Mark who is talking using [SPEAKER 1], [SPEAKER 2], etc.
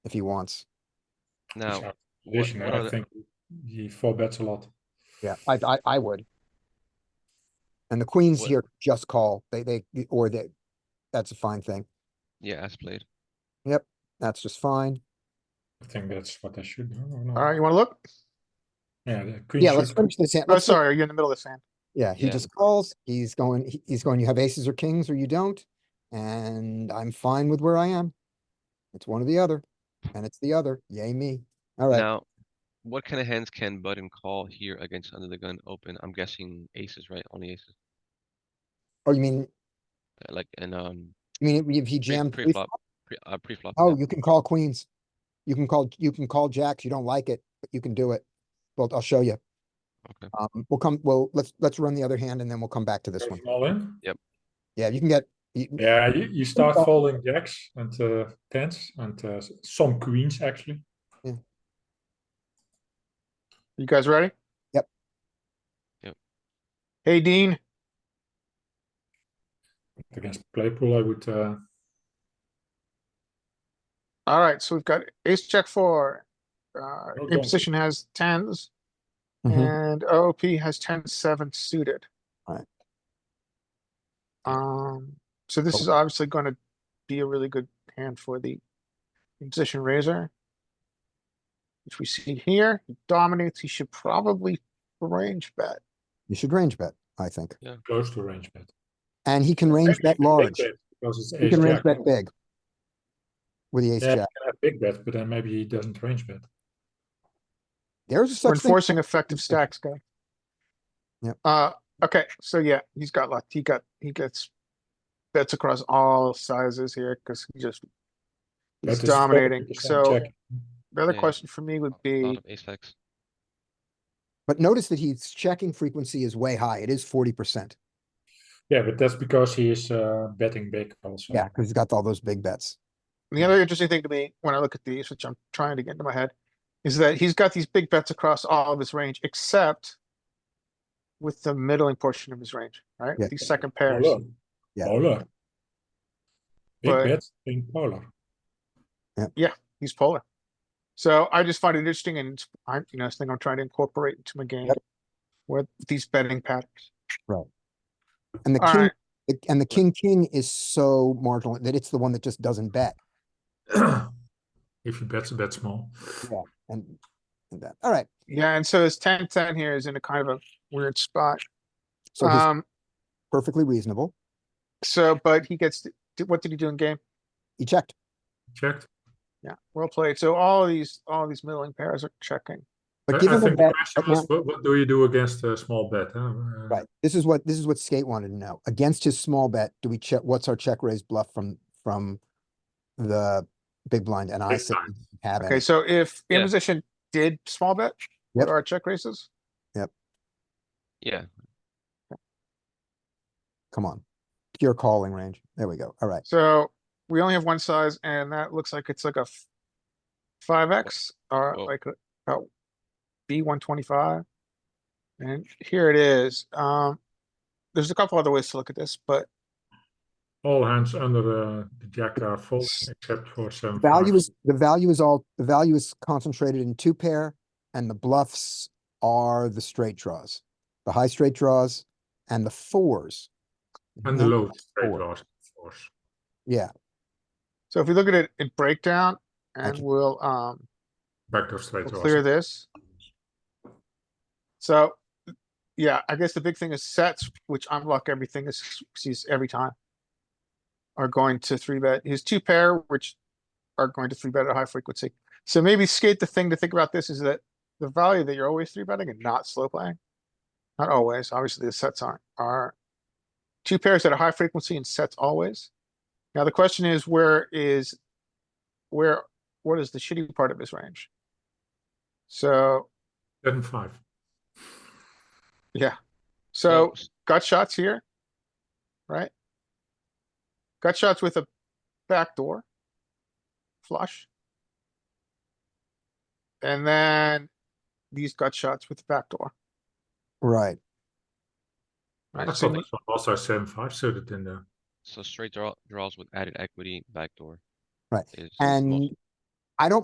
[SPEAKER 1] if he wants.
[SPEAKER 2] Now,
[SPEAKER 3] our
[SPEAKER 2] what-
[SPEAKER 3] position,
[SPEAKER 2] what
[SPEAKER 3] and
[SPEAKER 2] are
[SPEAKER 3] I
[SPEAKER 2] the-
[SPEAKER 3] think he four bets a lot.
[SPEAKER 1] Yeah, I, I, I would. And the queens
[SPEAKER 2] What-
[SPEAKER 1] here just call, they, they, or they, that's a fine thing,
[SPEAKER 2] yeah, as played.
[SPEAKER 1] that's just fine.
[SPEAKER 3] I think that's what I should do. or not.
[SPEAKER 4] All right, you wanna look?
[SPEAKER 3] Yeah, the queen
[SPEAKER 1] Yeah, let's
[SPEAKER 3] should-
[SPEAKER 1] finish this hand.
[SPEAKER 4] Oh,
[SPEAKER 1] Let's fin-
[SPEAKER 4] sorry, are you in the middle of this hand?
[SPEAKER 1] Yeah, he
[SPEAKER 2] Yeah.
[SPEAKER 1] just calls, he's going, he- he's going, you have aces or kings or you don't, and I'm fine with where I am. It's one or the other, and it's the other, yay me, alright,
[SPEAKER 2] Now, what kind of hands can button call here against under the gun open? I'm guessing aces, right? Only aces,
[SPEAKER 1] oh, you mean,
[SPEAKER 2] Uh, like and um
[SPEAKER 1] you mean if he
[SPEAKER 2] pre
[SPEAKER 1] jammed,
[SPEAKER 2] pre
[SPEAKER 1] pre-
[SPEAKER 2] flop, pre uh, pre flop.
[SPEAKER 1] oh, you can call queens. You can call, you can call jacks, you don't like it, but you can do it, well, I'll show you.
[SPEAKER 2] Okay.
[SPEAKER 1] Um, we'll come, well, let's, let's run the other hand and then we'll come back to this one.
[SPEAKER 3] Goes all in.
[SPEAKER 1] Yeah, you can get, you-
[SPEAKER 3] Yeah, you, you start
[SPEAKER 1] call.
[SPEAKER 3] folding jacks and uh, tens and uh, s- some queens actually.
[SPEAKER 4] You guys ready?
[SPEAKER 1] Yep.
[SPEAKER 2] Yep.
[SPEAKER 4] Hey, Dean,
[SPEAKER 3] Against Playpool, I would uh,
[SPEAKER 4] alright, so we've got ace jack four. Uh,
[SPEAKER 3] donkey.
[SPEAKER 4] in position has tens
[SPEAKER 1] Mhm.
[SPEAKER 4] and OP has ten seven suited.
[SPEAKER 1] Alright.
[SPEAKER 4] Um, so this is
[SPEAKER 1] Oh.
[SPEAKER 4] obviously gonna be a really good hand for the in position raiser. Which we see here, He dominates, he should probably range bet.
[SPEAKER 1] you should range bet, I think,
[SPEAKER 3] close to range bet.
[SPEAKER 1] and he can range
[SPEAKER 3] Actually,
[SPEAKER 1] bet
[SPEAKER 3] you can big
[SPEAKER 1] large.
[SPEAKER 3] bet Because it's
[SPEAKER 1] You
[SPEAKER 3] ace
[SPEAKER 1] can range
[SPEAKER 3] jack.
[SPEAKER 1] bet big. With the ace
[SPEAKER 3] Yeah, you
[SPEAKER 1] jack.
[SPEAKER 3] can have big bet, but then maybe he doesn't range bet.
[SPEAKER 1] There's a
[SPEAKER 4] We're
[SPEAKER 1] such thing.
[SPEAKER 4] enforcing effective stacks, guy.
[SPEAKER 1] Yep.
[SPEAKER 4] Uh, okay, so yeah, he's got luck. He got, he gets bets across all sizes here because he just,
[SPEAKER 3] But
[SPEAKER 4] he's
[SPEAKER 3] it's
[SPEAKER 4] dominating.
[SPEAKER 3] 40%
[SPEAKER 4] So
[SPEAKER 3] check.
[SPEAKER 4] the other
[SPEAKER 2] Yeah.
[SPEAKER 4] question for me would
[SPEAKER 2] A
[SPEAKER 4] be,
[SPEAKER 2] lot of ace X.
[SPEAKER 1] But notice that his checking frequency is way high. It is forty percent.
[SPEAKER 3] Yeah, but that's because he is uh, betting big also.
[SPEAKER 1] Yeah, because he's got all those big bets.
[SPEAKER 4] the other interesting thing to me when I look at these, which I'm trying to get into my head, is that he's got these big bets across all of his range, except with the middling portion of his range, right?
[SPEAKER 1] Yeah.
[SPEAKER 4] These second pairs.
[SPEAKER 3] Polar.
[SPEAKER 1] Yeah.
[SPEAKER 3] Polar. Big
[SPEAKER 4] But-
[SPEAKER 3] bet in polar.
[SPEAKER 4] he's polar. So I just find it interesting and it's- I, you know, it's thing I'm trying to incorporate into my game.
[SPEAKER 1] Yep.
[SPEAKER 4] With these betting patterns.
[SPEAKER 1] And the king,
[SPEAKER 4] Alright,
[SPEAKER 1] the- and the king, king is so marginal that it's the one that just doesn't bet.
[SPEAKER 3] if he bets a bet small.
[SPEAKER 1] And, and that, all right.
[SPEAKER 4] yeah, and so his ten ten here is in a kind of a weird spot.
[SPEAKER 1] So he's
[SPEAKER 4] Um,
[SPEAKER 1] perfectly reasonable.
[SPEAKER 4] so, but he gets, to- did- what did he do in game?
[SPEAKER 1] He checked.
[SPEAKER 3] Checked.
[SPEAKER 4] Yeah, well played. So all these, all these middling pairs are checking.
[SPEAKER 3] I-
[SPEAKER 1] But
[SPEAKER 3] I
[SPEAKER 1] given the
[SPEAKER 3] think the
[SPEAKER 1] bet,
[SPEAKER 3] question
[SPEAKER 1] but
[SPEAKER 3] was,
[SPEAKER 1] not-
[SPEAKER 3] what, what do you do against a small bet? huh? Uh,
[SPEAKER 1] right, this is what, this is what Skate wanted to know. Against his small bet, do we check, what's our check raise bluff from, from the big blind? And I
[SPEAKER 3] Big
[SPEAKER 1] said,
[SPEAKER 3] blind.
[SPEAKER 1] we have
[SPEAKER 4] Okay,
[SPEAKER 1] it.
[SPEAKER 4] so if
[SPEAKER 2] Yeah.
[SPEAKER 4] imposition did small bet, what
[SPEAKER 1] Yep.
[SPEAKER 4] are our check raises?
[SPEAKER 2] Yeah,
[SPEAKER 1] Come on. Pure calling range. There we go. All right.
[SPEAKER 4] So we only have one size and that looks like it's like a five X or
[SPEAKER 2] Whoa.
[SPEAKER 4] like a B one twenty-five. And here it is. Um, there's a couple other ways to look at this, but
[SPEAKER 3] All hands under the, the jack are full except for seven.
[SPEAKER 1] Value
[SPEAKER 3] five.
[SPEAKER 1] is, the value is all, the value is concentrated in two pair and the bluffs are the straight draws. The high straight draws and the fours.
[SPEAKER 3] and the
[SPEAKER 1] Mhm.
[SPEAKER 3] low straight
[SPEAKER 1] Four.
[SPEAKER 3] draws, of course.
[SPEAKER 1] Yeah,
[SPEAKER 4] so if we look at it in breakdown and
[SPEAKER 1] can-
[SPEAKER 4] we'll, um,
[SPEAKER 3] Backdoor straight draws.
[SPEAKER 4] we'll clear this. So, yeah, I guess the big thing is sets, which unlock everything is, sees every time. Are going to three bet, his two pair, which are going to three bet at high frequency. So maybe skate, the thing to think about this is that the value that you're always three betting and not slow playing. Not always, obviously the sets aren't, are two pairs at a high frequency and sets always. Now the question is, where is, where, what is the shitty part of his range? So,
[SPEAKER 3] Seven, five.
[SPEAKER 4] yeah,
[SPEAKER 2] so
[SPEAKER 4] so gut shots here, right? Gut shots with a backdoor flush. And then these gut shots with the backdoor,
[SPEAKER 1] right.
[SPEAKER 3] I
[SPEAKER 4] right?
[SPEAKER 3] thought
[SPEAKER 4] So
[SPEAKER 3] this one also seven, five suited in there.
[SPEAKER 2] so straight draw draws with added equity backdoor.
[SPEAKER 1] Right,
[SPEAKER 2] is- is most-
[SPEAKER 1] And